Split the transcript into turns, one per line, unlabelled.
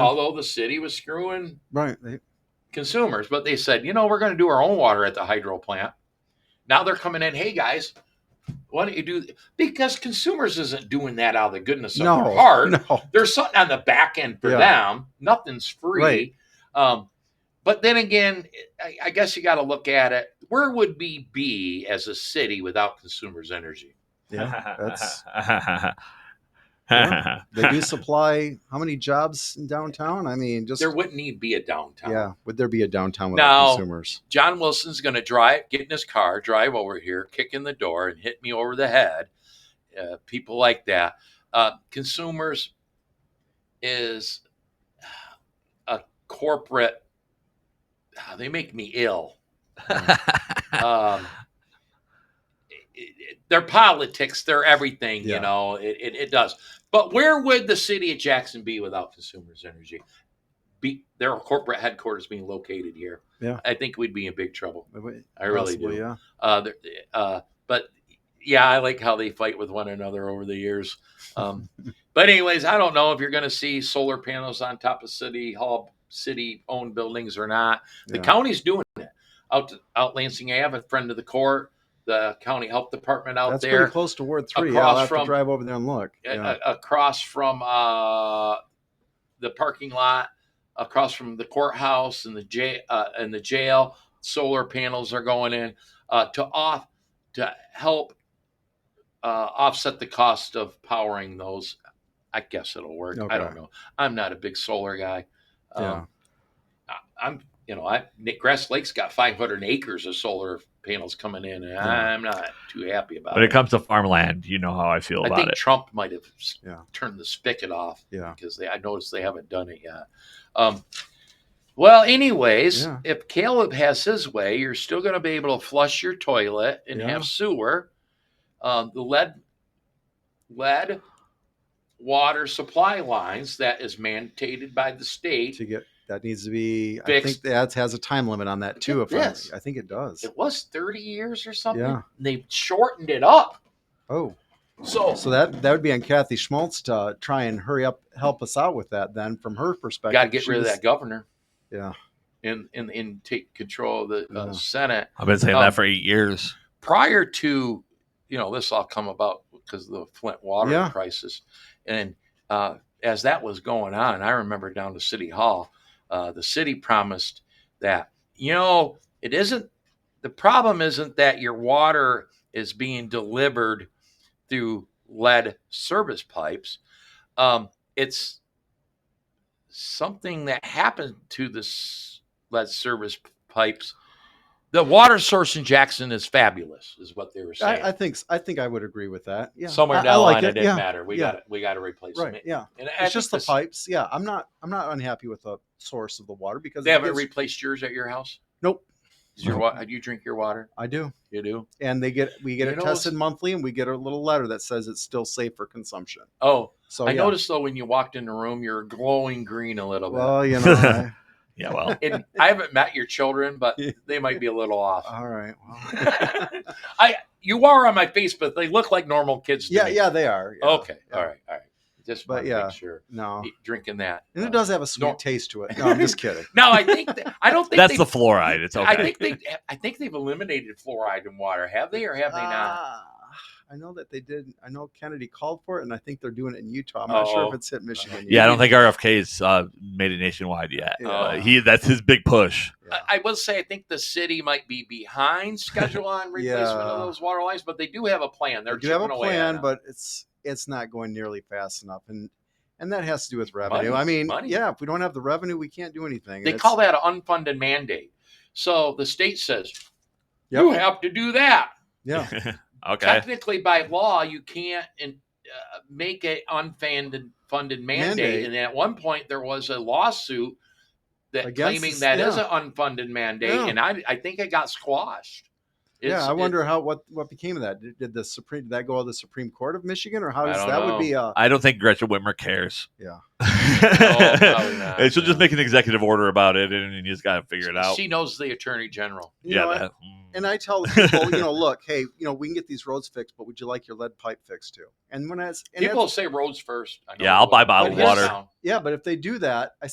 although the city was screwing
Right. They,
consumers, but they said, you know, we're going to do our own water at the hydro plant. Now they're coming in, hey guys, why don't you do? Because consumers isn't doing that out of the goodness of
no.
their heart.
No.
There's something on the back end for
Yeah.
them. Nothing's free.
Right.
Um, but then again, I, I guess you got to look at it. Where would we be as a city without consumers' energy?
Yeah. That's Yeah. they do supply how many jobs in downtown? I mean, just
There wouldn't need be a downtown.
yeah. Would there be a downtown without
No.
consumers?
John Wilson's going to drive, get in his car, drive over here, kick in the door, and hit me over the head. Uh, people like that. Uh, consumers is a corporate. ah, They make me ill. Um, it- it- their politics, their everything,
Yeah.
you know, it, it, it does. But where would the city of Jackson be without consumers' energy? Be their corporate headquarters being located here.
Yeah.
I think we'd be in big trouble. I really
Possibly,
do.
Yeah.
Uh, there- uh, but yeah, I like how they fight with one another over the years. Um, but anyways, I don't know if you're going to see solar panels on top of city hall, city-owned buildings or not. The
yeah.
county's doing it out out Lansing Ave, a friend of the court, the county health department out
That's
there,
pretty close to Ward Three. Yeah,
across
I'll have to
from- uh,
drive over there and look.
a-
Yeah.
a- across from uh, the parking lot, across from the courthouse and the jail uh, and the jail. Solar panels are going in uh, to off to help uh, offset the cost of powering those. I guess it'll work.
Okay.
I don't know. I'm not a big solar guy. Um,
yeah.
I- I'm, you know, I Nick Grass Lake's got 500 acres of solar panels coming in, and
Yeah.
I'm not too happy about
when it
it.
comes to farmland, you know how I feel
I
about
think
it.
Trump might have s-
Yeah.
turned the spigot off
Yeah.
because they, I noticed they haven't done it yet. Um, well, anyways,
Yeah.
if Caleb has his way, you're still going to be able to flush your toilet and
Yeah.
have sewer. Um, the lead, lead water supply lines that is mandated by the state
To get that needs to be. I think
Fixed.
that has a time limit on that too. If
Yes.
I, I think it does.
it was 30 years or something.
Yeah.
And they shortened it up.
Oh,
So,
so that that would be on Kathy Schmaltz to try and hurry up, help us out with that. Then from her perspective,
got to get
she
rid of
was-
that governor
Yeah.
and, and, and take control of the uh,
Yeah.
Senate.
I've been saying
Um,
that for eight years.
Prior to, you know, this all come about because of the Flint water
Yeah.
crisis. And uh, as that was going on, I remember down to City Hall, uh, the city promised that, you know, it isn't the problem isn't that your water is being delivered through lead service pipes. Um, it's something that happened to the s- lead service p- pipes. The water source in Jackson is fabulous, is what they were saying.
I, I think s- I think I would agree with that. Yeah,
Somewhere
I,
down
I
the
like
line,
it.
it, didn't
yeah,
matter. We
yeah.
got we got to replace them.
right. Yeah,
And I
it's
think
just the
this-
pipes. Yeah, I'm not I'm not unhappy with the source of the water because
They
it
haven't
gives-
replaced yours at your house.
Nope.
Is your
Nope.
water? You drink your water.
I do,
You do.
and they get we get
You
it
know,
tested monthly, and we get a little letter that says it's still safe for consumption.
Oh,
So
I
yeah.
noticed though when you walked in the room, you're glowing green a little bit.
Well, you know, I-
Yeah, well,
and I haven't met your children, but they might be a little off.
all right. Well,
I you are on my face, but they look like normal kids. To
yeah,
me.
yeah, they are. yeah,
Okay,
yeah.
all right, all right. Just
But
but
yeah.
yeah, make sure
No,
Y- drinking that.
and
uh,
it does have a sweet
nor-
taste to it. No, I'm just kidding.
No, I think that, I don't think
that's
they-
the fluoride. It's okay.
I think they I think they've eliminated fluoride in water. Have they or have they not?
Ah, I know that they did. I know Kennedy called for it, and I think they're doing it in Utah. I'm not sure if
Oh.
it's hit Michigan.
yeah, I
yet.
don't think RFK's uh, made it nationwide yet.
Yeah.
Uh, he that's his big push.
Yeah.
I, I will say I think the city might be behind schedule on replacement of
Yeah.
those water lines, but they do have a plan. They're
They do have a
chipping away at
plan,
it.
but it's it's not going nearly fast enough, and and that has to do with revenue. I
Money,
mean,
money.
yeah, if we don't have the revenue, we can't do anything.
They call that an unfunded mandate. So the state says
Yep.
you have to do that.
yeah,
okay.
Technically, by law, you can't in, uh, make an unfunded funded mandate.
Mandate.
And at one point, there was a lawsuit that
Against
claiming
this-
that is
yeah.
an unfunded mandate,
Yeah.
and I I think it got squashed. It's-
yeah. I
it-
wonder how what what became of that. Did, did the supreme did that go to the Supreme Court of Michigan, or how
I
does
don't
that would
know.
be? Uh,
I don't think Gretchen Whitmer cares.
Yeah.
probably not,
And She'll
yeah.
just make an executive order about it, and you just gotta figure it out.
She knows the attorney general.
you
yeah.
know, I-
that- mm.
and I tell the people, you know, look, hey, you know, we can get these roads fixed, but would you like your lead pipe fixed too? And when I s- and that's-
People say roads first. I know
Yeah, I'll
they
buy
will.
bottled
But here's
water.
how-
yeah, but if they do that, I